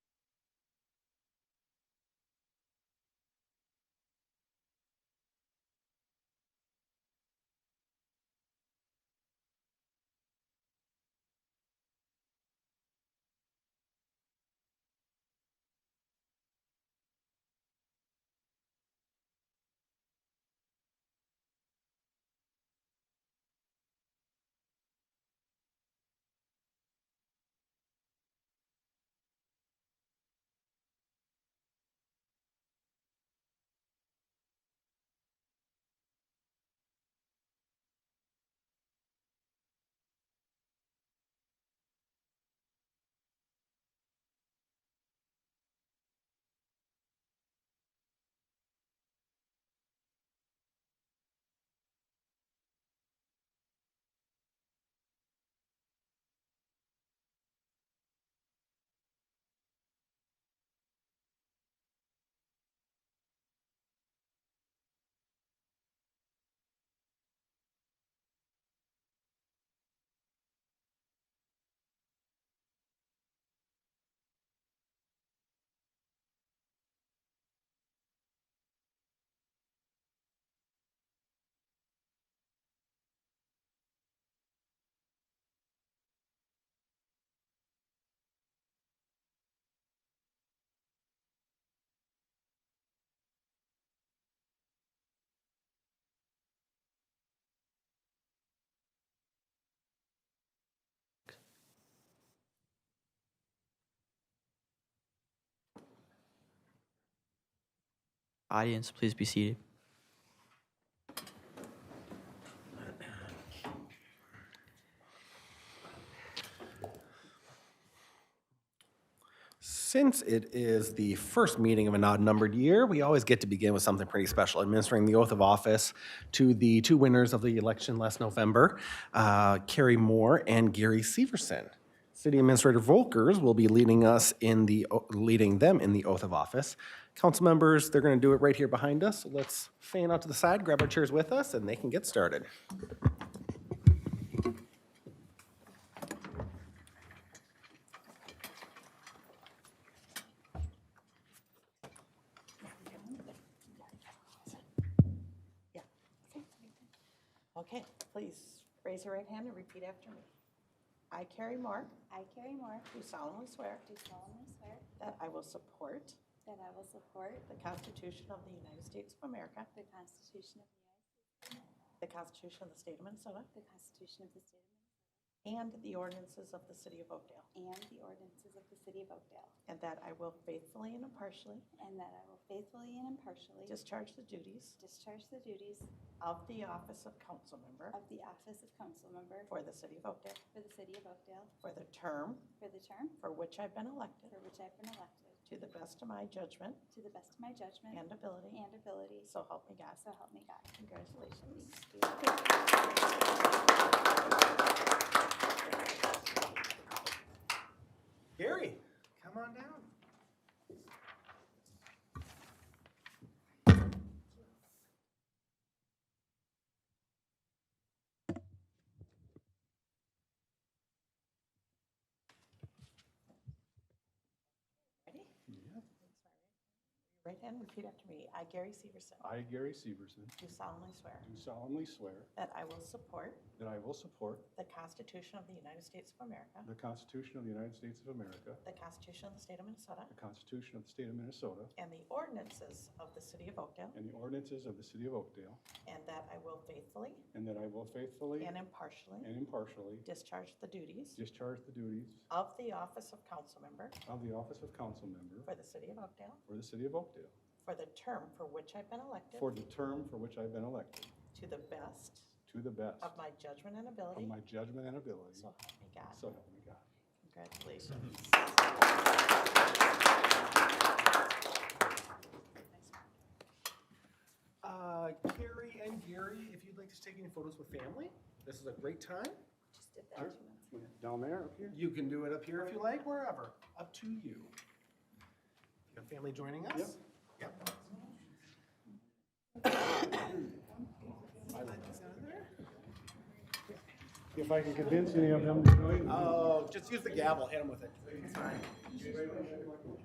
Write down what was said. Audience, please be seated. Since it is the first meeting of an odd-numbered year, we always get to begin with something pretty special, administering the oath of office to the two winners of the election last November, uh, Carrie Moore and Gary Severson. City Administrator Volkers will be leading us in the, o- leading them in the oath of office. Council members, they're going to do it right here behind us. So Let's fan out to the side, grab our chairs with us, and they can get started. Okay, please raise your right hand and repeat after me. I, Carrie Moore, I, Carrie Moore, do solemnly swear do solemnly swear that I will support that I will support the Constitution of the United States of America, the Constitution of the United the Constitution of the State of Minnesota, the Constitution of the State of and the ordinances of the City of Oakdale, Minnesota, and the ordinances of the City of Oakdale, and that I will faithfully and impartially and that I will faithfully and impartially discharge the duties discharge the duties of the office of council member of the office of council member for the City of Oakdale for the City of Oakdale for the term for the term for which I've been elected, for which I've been elected, to the best of my judgment to the best of my judgment and ability, and ability, so help me God. so help me God. Congratulations. Gary, come on down. Ready? Right hand, repeat after me. I, Gary Severson, I, Gary Severson, do solemnly swear do solemnly swear that I will support that I will support the Constitution of the United States of America, the Constitution of the United States of America, the Constitution of the State of Minnesota, the Constitution of the State of Minnesota, and the ordinances of the City of Oakdale, and the ordinances of the City of Oakdale, and that I will faithfully and that I will faithfully and impartially and impartially discharge the duties discharge the duties of the office of council member of the office of council member for the City of Oakdale for the City of Oakdale for the term for which I've been elected for the term for which I've been elected, to the best to the best of my judgment and of ability, my judgment and ability, so so Mm-hmm. help me God. help me God. Congratulations. Uh, Carrie and Gary, if you'd like to take any photos with family, this is a great time. Just did that Sure. two months. Down there, up here? You can do it up here if you like, wherever, up to you. You have family joining us? Yep. Yep. Slide this down there. If I can Uh, convince any of them to join. Oh, just use the gavel, hit them with it.